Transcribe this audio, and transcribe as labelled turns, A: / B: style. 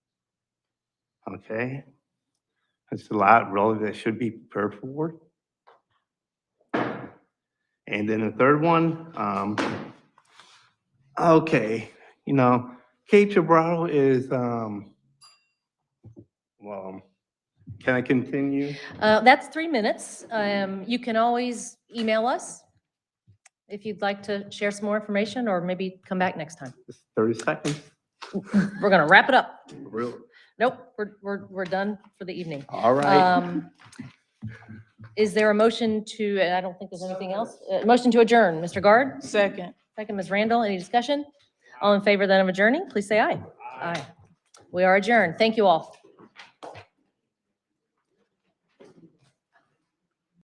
A: Okay. That's the lot really that should be prepared for. And then the third one, um, okay, you know, Cape Gibraltar is, um, well, can I continue?
B: Uh, That's three minutes. Um, You can always email us if you'd like to share some more information or maybe come back next time.
A: Just Thirty seconds?
B: We're going to wrap it up.
A: Really?
B: Nope, we're, we're, we're done for the evening.
A: All right.
B: Um, Is there a motion to, and I don't think there's anything else, Uh, motion to adjourn, Mr. Guard?
C: Second.
B: Second, Ms. Randall, any discussion? All in favor then of adjourning, please say aye. Aye. We are adjourned. Thank you all.